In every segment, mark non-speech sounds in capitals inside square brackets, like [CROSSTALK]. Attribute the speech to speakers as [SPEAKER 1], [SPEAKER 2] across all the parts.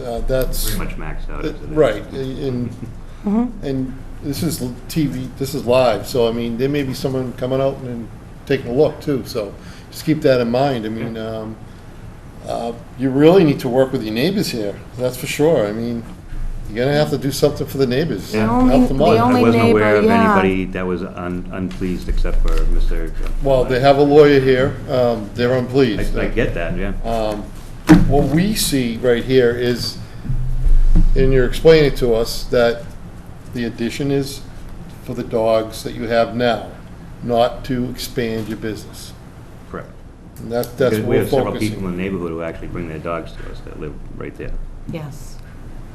[SPEAKER 1] Uh, That's,
[SPEAKER 2] pretty much maxed out. as it is.
[SPEAKER 1] right, and,
[SPEAKER 3] Mm-hmm.
[SPEAKER 1] and this is TV, this is live, so I mean, there may be someone coming out and taking a look too, so just keep that in mind. I mean, um, uh, you really need to work with your neighbors here, that's for sure. I mean, you're gonna have to do something for the neighbors.
[SPEAKER 2] Yeah. The
[SPEAKER 1] help
[SPEAKER 3] only-
[SPEAKER 1] them
[SPEAKER 3] the
[SPEAKER 1] out.
[SPEAKER 2] I
[SPEAKER 3] only
[SPEAKER 2] wasn't aware of
[SPEAKER 3] neighbor, yeah.
[SPEAKER 2] anybody that was un- unpleased except for Mr.
[SPEAKER 1] Well, they have a lawyer here, um, they're
[SPEAKER 2] I
[SPEAKER 1] unpleased.
[SPEAKER 2] I get that, yeah.
[SPEAKER 1] Um, What we see right here is, and you're explaining to us, that the addition is for the dogs that you have now, not to expand your business.
[SPEAKER 2] Correct.
[SPEAKER 1] And that, that's
[SPEAKER 2] Because
[SPEAKER 1] what
[SPEAKER 2] we
[SPEAKER 1] we're
[SPEAKER 2] have several people
[SPEAKER 1] focusing.
[SPEAKER 2] in the neighborhood who actually bring their dogs to us that live right there.
[SPEAKER 3] Yes.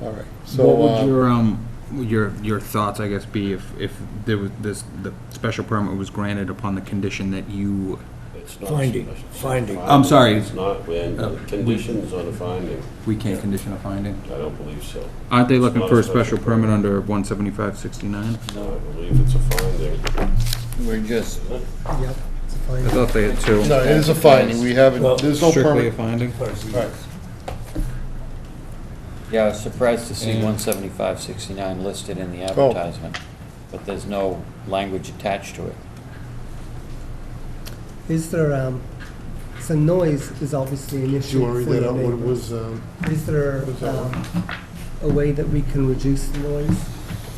[SPEAKER 1] All right,
[SPEAKER 4] What
[SPEAKER 1] so,
[SPEAKER 4] would
[SPEAKER 1] uh,
[SPEAKER 4] your, um, your, your thoughts, I guess, be if, if there was this, the special permit was granted upon the condition that you,
[SPEAKER 5] It's not
[SPEAKER 6] Finding,
[SPEAKER 5] special.
[SPEAKER 6] finding.
[SPEAKER 4] I'm sorry.
[SPEAKER 5] It's not, when
[SPEAKER 4] Uh,
[SPEAKER 5] conditions on a finding,
[SPEAKER 4] we can't condition a finding?
[SPEAKER 5] I don't believe so.
[SPEAKER 4] Aren't they looking
[SPEAKER 5] Not
[SPEAKER 4] for
[SPEAKER 5] a
[SPEAKER 4] a special
[SPEAKER 5] special permit.
[SPEAKER 4] permit under one seventy-five sixty-nine?
[SPEAKER 5] No, I believe it's a finding.
[SPEAKER 1] we're just,
[SPEAKER 6] Yep. it's a
[SPEAKER 4] I
[SPEAKER 6] finding.
[SPEAKER 4] thought they had two.
[SPEAKER 1] no, it is a finding, we haven't, there's no
[SPEAKER 4] Strictly a
[SPEAKER 1] permit.
[SPEAKER 4] finding?
[SPEAKER 1] Right.
[SPEAKER 7] Yeah, I was surprised to see
[SPEAKER 4] And-
[SPEAKER 7] one seventy-five sixty-nine listed in the
[SPEAKER 1] Oh.
[SPEAKER 7] advertisement, but there's no language attached to it.
[SPEAKER 6] Is there, um, so noise is obviously an
[SPEAKER 1] Did you
[SPEAKER 6] issue
[SPEAKER 1] want
[SPEAKER 6] for
[SPEAKER 1] to read that
[SPEAKER 6] the
[SPEAKER 1] out, what it
[SPEAKER 6] neighbor.
[SPEAKER 1] was, um,
[SPEAKER 6] Is there,
[SPEAKER 1] was that
[SPEAKER 6] um, a way that we can reduce the noise?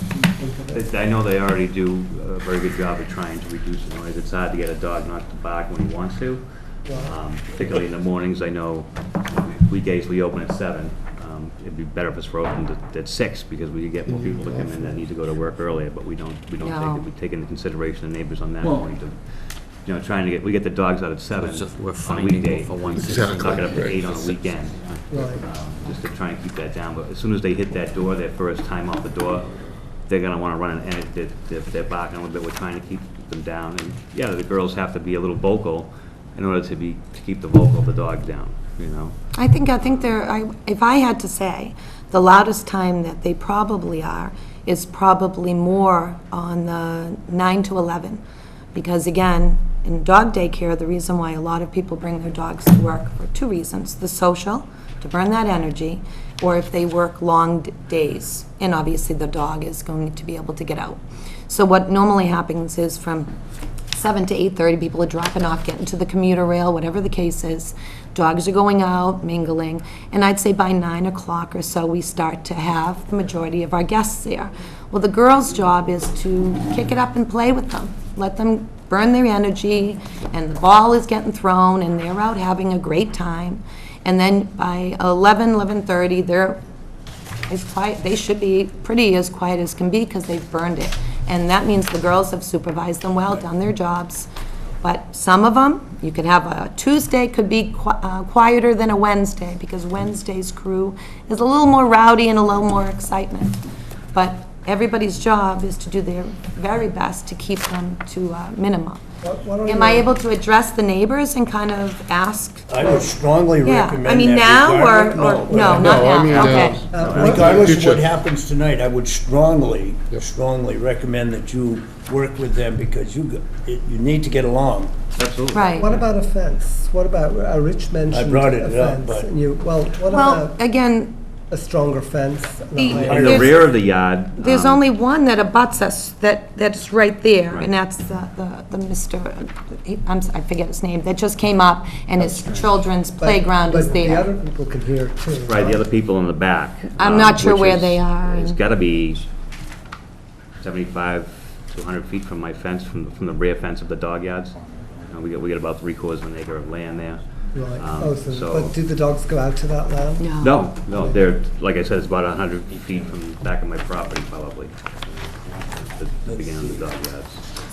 [SPEAKER 6] Can you think of it?
[SPEAKER 2] I I know they already do a very good job of trying to reduce the noise. It's hard to get a dog not to bark when he wants to,
[SPEAKER 6] Well,
[SPEAKER 2] um, particularly in the mornings. I know weekdays we open at seven. Um, It'd be better if it's open at- at six because we could get more people to come in that need to go to work earlier, but we don't, we don't
[SPEAKER 3] No.
[SPEAKER 2] take, it. we take into consideration the neighbors on that
[SPEAKER 4] Well-
[SPEAKER 2] point of, you know, trying to get, we get the dogs out at seven
[SPEAKER 7] It's just we're
[SPEAKER 2] on a
[SPEAKER 7] finding
[SPEAKER 2] weekday.
[SPEAKER 7] for one
[SPEAKER 1] Exactly.
[SPEAKER 2] Knock it up to
[SPEAKER 1] Right.
[SPEAKER 2] eight on a weekend.
[SPEAKER 6] Right.
[SPEAKER 2] um, just to try and keep that down, but as soon as they hit that door, their first time off the door, they're gonna wanna run and, and they're, they're- they're barking a little bit, we're trying to keep them down, and, yeah, the girls have to be a little vocal in order to be, to keep the vocal of the dog down, you know?
[SPEAKER 3] I think, I think there, I, if I had to say, the loudest time that they probably are is probably more on the nine to eleven. Because again, in dog daycare, the reason why a lot of people bring their dogs to work for two reasons. The social, to burn that energy, or if they work long d- days. And obviously, the dog is going to be able to get out. So what normally happens is from seven to eight thirty, people are dropping off, getting to the commuter rail, whatever the case is. Dogs are going out, mingling, and I'd say by nine o'clock or so, we start to have the majority of our guests there. Well, the girls' job is to kick it up and play with them, let them burn their energy, and the ball is getting thrown, and they're out having a great time. And then by eleven, eleven-thirty, they're as quiet, they should be pretty as quiet as can be because they've burned it. And that means the girls have supervised them well, done their jobs. But some of them, you could have a Tuesday could be qui- uh, quieter than a Wednesday because Wednesday's crew is a little more rowdy and a little more excitement. But everybody's job is to do their very best to keep them to a minimum.
[SPEAKER 6] why- why don't
[SPEAKER 3] Am I
[SPEAKER 6] you-
[SPEAKER 3] able to address the neighbors and kind of ask?
[SPEAKER 8] I would strongly
[SPEAKER 3] Yeah,
[SPEAKER 8] recommend that.
[SPEAKER 3] I mean, now or,
[SPEAKER 8] regardless-
[SPEAKER 3] or, no, not
[SPEAKER 1] No, I
[SPEAKER 3] now,
[SPEAKER 1] mean,
[SPEAKER 3] okay.
[SPEAKER 1] um,
[SPEAKER 8] Regardless of what
[SPEAKER 1] Future.
[SPEAKER 8] happens tonight, I would strongly,
[SPEAKER 1] Yep.
[SPEAKER 8] strongly recommend that you work with them because you, go- you you need to get along.
[SPEAKER 2] Absolutely.
[SPEAKER 3] Right.
[SPEAKER 6] What about a fence? What about, uh, Rich mentioned
[SPEAKER 8] brought
[SPEAKER 6] a
[SPEAKER 8] it up,
[SPEAKER 6] fence,
[SPEAKER 8] but-
[SPEAKER 6] and you, well, what
[SPEAKER 3] Well,
[SPEAKER 6] about
[SPEAKER 3] again,
[SPEAKER 6] a stronger fence? and a
[SPEAKER 3] The-
[SPEAKER 6] higher-
[SPEAKER 2] In the
[SPEAKER 3] There's-
[SPEAKER 2] rear of the yard.
[SPEAKER 3] There's
[SPEAKER 2] um,
[SPEAKER 3] only one that abuts us, that, that's right there,
[SPEAKER 2] Right.
[SPEAKER 3] and that's the, the the Mr., he- I'm, s- I forget his name, that just came up, and his children's
[SPEAKER 6] But-
[SPEAKER 3] playground is
[SPEAKER 6] But the
[SPEAKER 3] there.
[SPEAKER 6] other people can hear too.
[SPEAKER 2] Right, the other people in the back.
[SPEAKER 3] I'm
[SPEAKER 2] um,
[SPEAKER 3] not sure
[SPEAKER 2] which
[SPEAKER 3] where
[SPEAKER 2] is-
[SPEAKER 3] they are
[SPEAKER 2] It's
[SPEAKER 3] and-
[SPEAKER 2] gotta be seventy-five to hundred feet from my fence, from, from the rear fence of the dog yards. Uh, we got, we got about three quarters of an acre of land there.
[SPEAKER 6] Right,
[SPEAKER 2] Um,
[SPEAKER 6] oh, so, but do the dogs go out to that land?
[SPEAKER 2] No, no, they're, like I said, it's about a hundred feet from the back of my property probably. The- The beginning of the dog yards.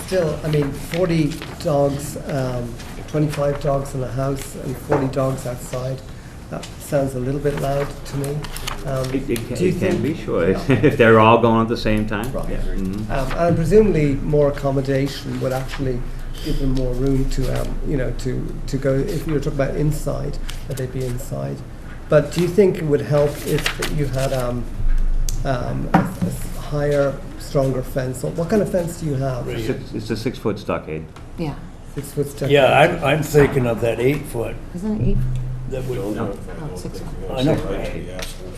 [SPEAKER 6] Still, I mean, 40 dogs, um, 25 dogs in a house and 40 dogs outside, that sounds a little bit loud to me. Um,
[SPEAKER 2] It, it can-
[SPEAKER 6] do you
[SPEAKER 2] it can
[SPEAKER 6] think-
[SPEAKER 2] be, sure,
[SPEAKER 6] Yeah.
[SPEAKER 2] [LAUGHS] if they're all going at the same time.
[SPEAKER 6] Right.
[SPEAKER 2] yeah, mhm.
[SPEAKER 6] Um, And presumably, more accommodation would actually give them more room to, um, you know, to, to go, if you were talking about inside, that they'd be inside. But do you think it would help if you had um, um, a a s- higher, stronger fence? Or What kind of fence do you have?
[SPEAKER 8] Right.
[SPEAKER 2] Six- It's a six-foot stockade.
[SPEAKER 3] Yeah,
[SPEAKER 6] It's with stucco.
[SPEAKER 8] Yeah, I'm, I'm thinking of that eight foot
[SPEAKER 3] isn't it eight?
[SPEAKER 8] that would,
[SPEAKER 3] No, it's six.
[SPEAKER 8] I know.
[SPEAKER 5] Right, yes.